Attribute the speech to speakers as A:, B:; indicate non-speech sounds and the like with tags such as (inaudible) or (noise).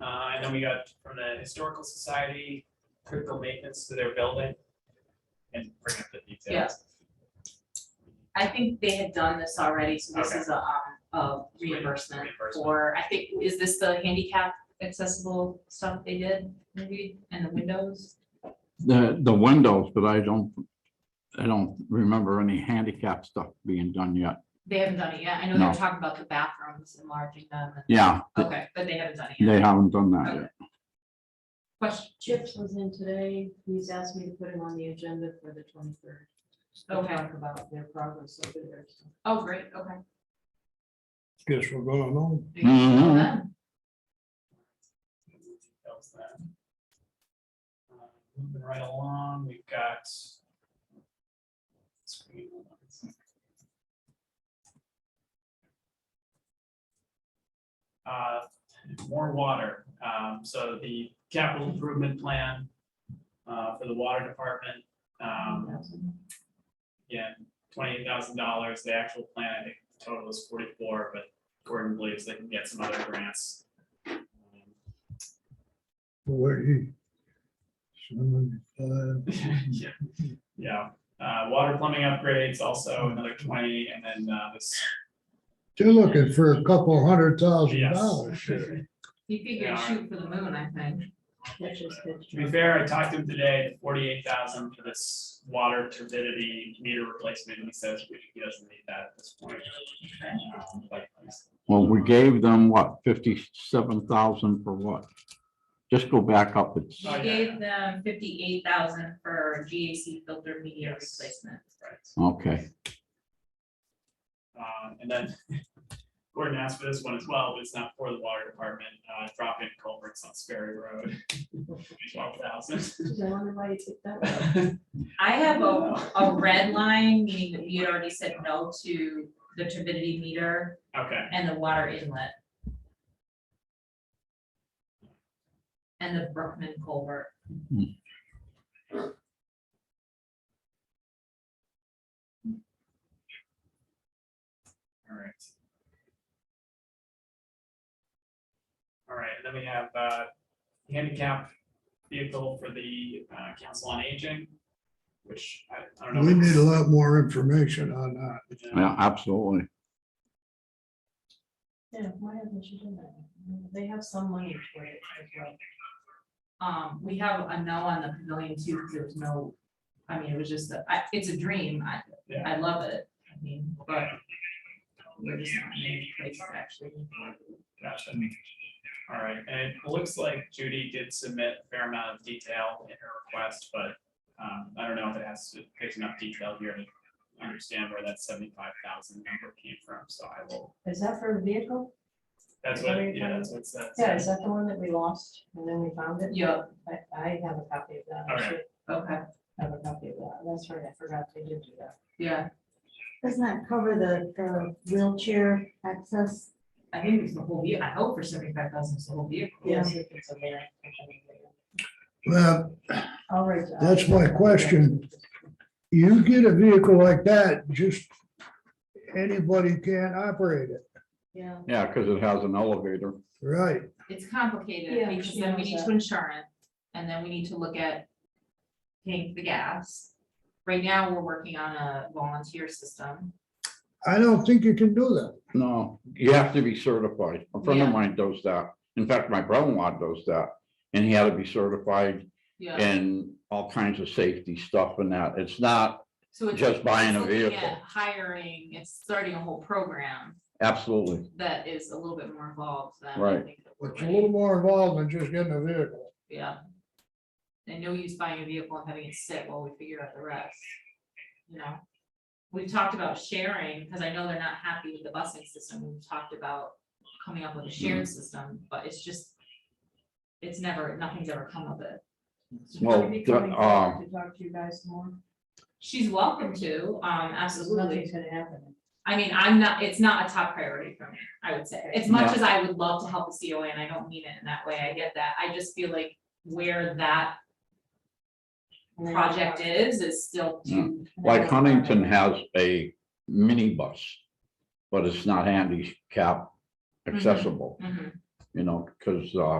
A: Uh, I know we got from the historical society, critical maintenance to their building. And bring up the details.
B: I think they had done this already, so this
A: Okay.
B: is a, um, a reimbursement
A: Reimbursement.
B: for, I think, is this the handicap accessible stuff they did, maybe, and the windows?
C: The, the windows, but I don't, I don't remember any handicap stuff being done yet.
B: They haven't done it yet, I know they were
C: No.
B: talking about the bathrooms, enlarging them, and-
C: Yeah, th-
B: okay, but they haven't done it
C: they
B: yet.
C: haven't done that
B: Okay.
C: yet.
B: Question,
D: Chips was in today, he's asked me to put him on the agenda for the twenty-third.
B: Okay.
D: Talk about their progress over there. so.
B: oh, great, okay.
E: Guess we're going home.
B: There you go,
C: Mhm.
B: then.
A: Details then. Uh, Moving right along, we've got. screen one. Uh, more water, um, so the capital improvement plan, uh, for the water department, um, again, twenty-eight thousand dollars, the actual plan, I think the total is forty-four, but Gordon believes they can get some other grants. Um,
E: Where he? Seventy-five.
A: (laughs) Yeah, yeah, uh, water plumbing upgrades also another twenty, and then, uh, this.
E: You're looking for a couple hundred thousand
A: yes.
E: dollars here.
B: You could
A: Yeah.
B: get shoot for the moon, I think.
D: That's just good.
A: To be fair, I talked to him today, forty-eight thousand for this water turbidity meter replacement, and he says we- he doesn't need that at this point. Um, but-
C: Well, we gave them what, fifty-seven thousand for what? Just go back up. It's,
A: Oh, yeah.
B: We gave them fifty-eight thousand for GAC filter media
A: Yes.
B: replacement.
A: Right.
C: okay.
A: Um, and then (laughs) Gordon asked for this one as well, but it's not for the water department, uh, drop in culverts on Sperry Road. (laughs) Twelve thousand. (laughs)
D: Geez, I wonder why you took that one.
B: I have a, a red line, meaning that we had already said no to the turbidity meter
A: Okay,
B: and the water inlet. And the Brookman culvert.
A: all right. All right, and then we have, uh, handicap vehicle for the, uh, council on aging, which I, I don't know.
E: We need a lot more information on that.
C: Yeah, absolutely.
D: Yeah, why haven't you done that? They have some money for it. as well.
B: Um, we have a no on the pavilion too, because there was no, I mean, it was just, a- I, it's a dream. I,
A: Yeah.
B: I love it. I mean,
A: But,
B: we're just not in a place to actually.
A: Gotcha. All right, and it looks like Judy did submit a fair amount of detail in her request, but um, I don't know if it has, if there's enough detail here to understand where that seventy-five thousand number came from, so I will,
D: Is that for a vehicle?
A: that's what, yeah, that's what's that.
D: Yeah, is that the one that we lost and then we found it?
B: Yeah,
D: I, I have a copy of that. I
A: Okay.
D: should
B: okay,
D: Have a copy of that. That's right. I forgot they did do that.
B: yeah.
F: Doesn't that cover the, the wheelchair access?
B: I think it's the whole vehicle. I hope for seventy-five thousand, it's the whole vehicle.
D: Yes. if it's a van, I mean,
E: Well,
D: I'll write that.
E: That's my question. you get a vehicle like that, just anybody can operate it,
D: Yeah.
C: Yeah, because it has an elevator.
E: right?
B: It's complicated
D: Yeah,
B: because
D: she
B: then we
D: knows
B: need
D: that.
B: to insure it and then we need to look at paying for the gas. Right now, we're working on a volunteer system.
E: I don't think you can do that.
C: No, you have to be certified. A friend
B: Yeah.
C: of mine does that. In fact, my brother-in-law does that. And he had to be certified
B: Yeah.
C: and all kinds of safety stuff and that. It's not,
B: So it's.
C: just
B: it's
C: buying a
B: looking at
C: vehicle.
B: Hiring, it's starting a whole program
C: absolutely,
B: that is a little bit more involved than. I
C: Right.
B: think that we're
E: It's a
B: ready.
E: little more involved than just getting a vehicle.
B: Yeah. And no use buying a vehicle and having it sit while we figure out the rest, you know? We've talked about sharing, because I know they're not happy with the busing system, we've talked about coming up with a shared system, but it's just. It's never, nothing's ever come of it.
C: Well,
D: Maybe
C: the-
D: coming
C: um,
D: forward To talk to you guys more.
B: She's welcome to, um, absolutely.
D: Nothing's gonna happen.
B: I mean, I'm not, it's not a top priority for me, I would say, as much as I would love to help the COA, and I don't mean it in that way, I get that, I just feel like. Where that
D: And then-
B: project is, is still too,
C: like Huntington has a minibus. But it's not handicap accessible,
B: Mhm.
C: you know, because, uh,